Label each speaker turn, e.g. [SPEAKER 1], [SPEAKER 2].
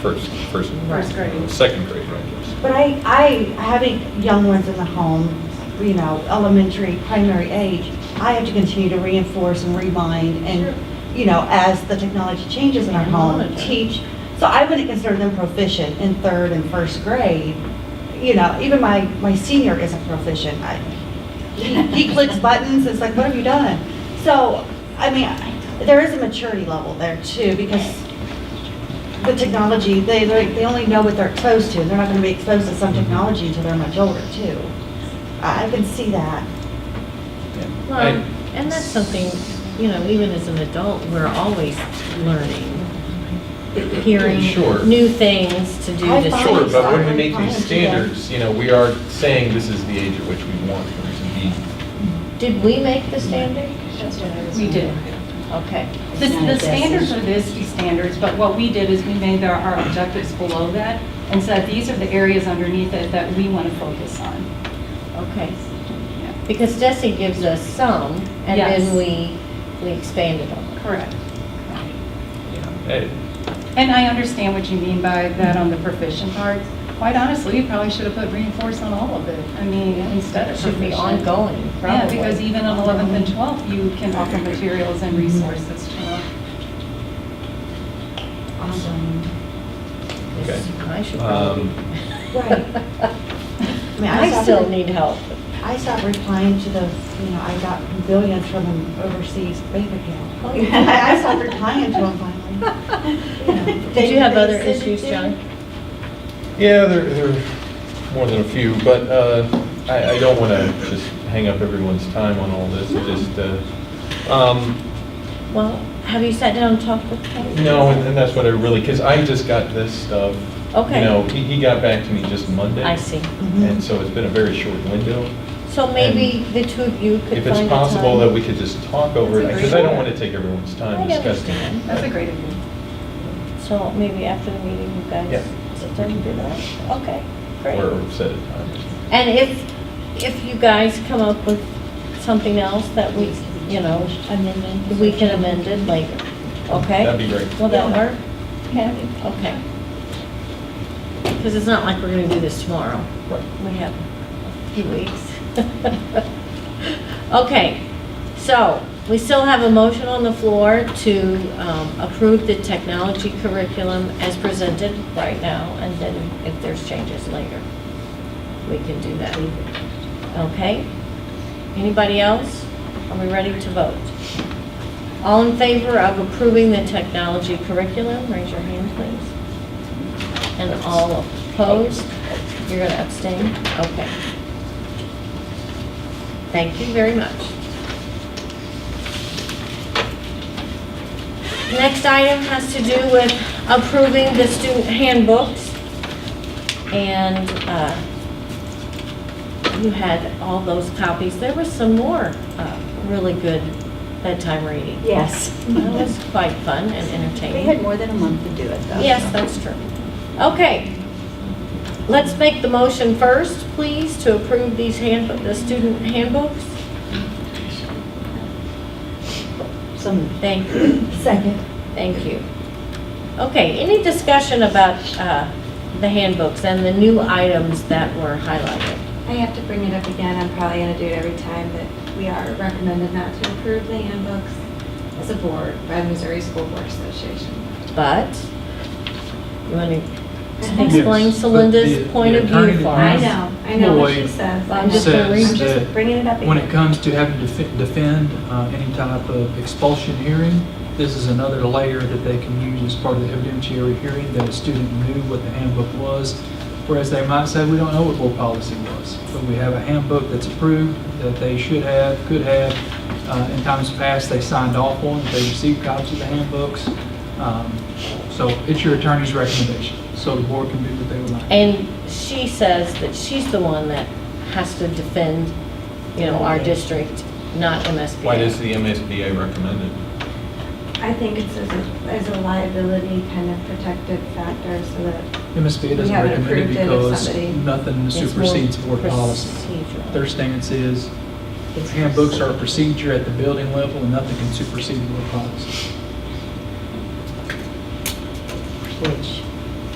[SPEAKER 1] first, first.
[SPEAKER 2] First grade.
[SPEAKER 1] Second grade, I guess.
[SPEAKER 3] But I, I, having young ones in the home, you know, elementary, primary age, I have to continue to reinforce and remind
[SPEAKER 2] Sure.
[SPEAKER 3] and, you know, as the technology changes in our
[SPEAKER 2] And
[SPEAKER 3] home,
[SPEAKER 2] monitor.
[SPEAKER 3] teach. So I wouldn't consider them proficient in third and first grade. You know, even my, my senior isn't proficient. I, he he clicks buttons, it's like, what have you done? So, I mean, I- there is a maturity level there too, because the technology, they, they they only know what they're exposed to, and they're not gonna be exposed to
[SPEAKER 2] Mm-hmm.
[SPEAKER 3] some technology until they're much older too. I I can see that.
[SPEAKER 1] Yeah.
[SPEAKER 4] Well,
[SPEAKER 1] I-
[SPEAKER 4] and that's something, you know, even as an adult, we're always learning, hearing
[SPEAKER 5] Sure.
[SPEAKER 4] new things to do.
[SPEAKER 3] I
[SPEAKER 4] to
[SPEAKER 3] find
[SPEAKER 5] Sure,
[SPEAKER 4] see.
[SPEAKER 5] but when
[SPEAKER 3] Fine,
[SPEAKER 5] we make
[SPEAKER 3] fine,
[SPEAKER 5] these
[SPEAKER 3] yeah.
[SPEAKER 5] standards, you know, we are saying this is the age at which we want them to be.
[SPEAKER 4] Did we make the standard?
[SPEAKER 6] We did.
[SPEAKER 4] Okay.
[SPEAKER 6] The, the standards are the ISTE standards, but what we did is we made there our objectives below that and said, these are the areas underneath it that we want to focus on.
[SPEAKER 4] Okay. Because Desi gives us some, and
[SPEAKER 6] Yes.
[SPEAKER 4] then we, we expanded on it.
[SPEAKER 6] Correct.
[SPEAKER 1] I-
[SPEAKER 6] And I understand what you mean by that on the proficient part. Quite honestly, you probably should have put reinforce on all of it. I mean, instead
[SPEAKER 4] It
[SPEAKER 6] of
[SPEAKER 4] should be
[SPEAKER 6] proficient.
[SPEAKER 4] ongoing,
[SPEAKER 6] Yeah,
[SPEAKER 4] probably.
[SPEAKER 6] because even on 11th and 12th, you can offer materials and resources to them.
[SPEAKER 3] Awesome.
[SPEAKER 1] Okay.
[SPEAKER 4] I should probably.
[SPEAKER 1] Um,
[SPEAKER 3] Right. I mean, I
[SPEAKER 4] I
[SPEAKER 3] stopped-
[SPEAKER 4] still need help.
[SPEAKER 3] I stopped replying to the, you know, I got billions from an overseas bank
[SPEAKER 2] Oh,
[SPEAKER 3] account. I I stopped replying to them finally. You know,
[SPEAKER 4] Did
[SPEAKER 3] they-
[SPEAKER 4] you have
[SPEAKER 3] they
[SPEAKER 4] other
[SPEAKER 3] send it
[SPEAKER 4] issues,
[SPEAKER 3] to you.
[SPEAKER 4] John?
[SPEAKER 5] Yeah, there, there are more than a few, but uh, I, I don't want to just hang up everyone's time on all this, just, uh, um,
[SPEAKER 4] Well, have you sat down and talked with him?
[SPEAKER 5] no, and and that's what I really, because I just got this stuff.
[SPEAKER 4] Okay.
[SPEAKER 5] You know, he, he got back to me just Monday.
[SPEAKER 4] I see.
[SPEAKER 3] Mhm.
[SPEAKER 5] And so it's been a very short window.
[SPEAKER 4] So maybe the two of you could
[SPEAKER 5] If
[SPEAKER 4] find a time.
[SPEAKER 5] it's possible that we could just talk over it,
[SPEAKER 6] That's a
[SPEAKER 5] because
[SPEAKER 6] great
[SPEAKER 5] I don't
[SPEAKER 6] idea.
[SPEAKER 5] want to take everyone's time
[SPEAKER 4] I
[SPEAKER 5] discussing.
[SPEAKER 4] understand.
[SPEAKER 5] it.
[SPEAKER 6] That's a great idea.
[SPEAKER 4] So maybe after the meeting, you guys
[SPEAKER 5] Yeah.
[SPEAKER 4] sit down and do that? Okay,
[SPEAKER 5] Or
[SPEAKER 4] great.
[SPEAKER 5] set a time or something.
[SPEAKER 4] And if, if you guys come up with something else that we, you know, amendment, we can amend it later, okay?
[SPEAKER 5] That'd be great.
[SPEAKER 4] Will that work? Yeah. Okay. Because it's not like we're gonna do this tomorrow.
[SPEAKER 5] Right.
[SPEAKER 4] We have a few weeks. Okay, so we still have a motion on the floor to um, approve the technology curriculum as presented right now, and then if there's changes later, we can do that. Okay? Anybody else? Are we ready to vote? All in favor of approving the technology curriculum, raise your hand, please. And all opposed? You're going to abstain? Okay. Thank you very much. Next item has to do with approving the student handbooks. And uh, you had all those copies. There was some more uh, really good bedtime reading.
[SPEAKER 3] Yes.
[SPEAKER 4] That was quite fun and entertaining.
[SPEAKER 2] We had more than a month to do it, though.
[SPEAKER 4] Yes, that's true. Okay. Let's make the motion first, please, to approve these handbook, the student handbooks.
[SPEAKER 2] Some
[SPEAKER 4] Thank you,
[SPEAKER 3] Second.
[SPEAKER 4] thank you. Okay, any discussion about uh, the handbooks and the new items that were highlighted?
[SPEAKER 7] I have to bring it up again, I'm probably gonna do it every time, but we are recommended not to approve the handbooks as a board by the Missouri School Board Association.
[SPEAKER 4] But, you want to explain Celinda's point of view for
[SPEAKER 7] I
[SPEAKER 4] us?
[SPEAKER 7] know, I know what she
[SPEAKER 8] Lloyd
[SPEAKER 7] says.
[SPEAKER 4] I'm just gonna read-
[SPEAKER 8] says
[SPEAKER 7] I'm just
[SPEAKER 8] that
[SPEAKER 7] bringing it up again.
[SPEAKER 8] when it comes to having to defe- defend uh, any type of expulsion hearing, this is another layer that they can use as part of the evidentiary hearing, that a student knew what the handbook was, whereas they might say, we don't know what board policy was, but we have a handbook that's approved, that they should have, could have. Uh, In times past, they signed off on, they received copies of the handbooks. Um, So it's your attorney's recommendation, so the board can do what they would like.
[SPEAKER 4] And she says that she's the one that has to defend, you know, our district, not MSBA.
[SPEAKER 5] Why does the MSBA recommend it?
[SPEAKER 7] I think it's as a, as a liability kind of protective factor, so that,
[SPEAKER 8] MSBA
[SPEAKER 7] We
[SPEAKER 8] doesn't
[SPEAKER 7] haven't
[SPEAKER 8] recommend it
[SPEAKER 7] approved it if
[SPEAKER 8] because
[SPEAKER 7] somebody-
[SPEAKER 8] nothing
[SPEAKER 4] It's more
[SPEAKER 8] supersedes board policy.
[SPEAKER 4] procedural.
[SPEAKER 8] Their stance is handbooks are a procedure at the building level and nothing can supersede board policy.
[SPEAKER 3] Which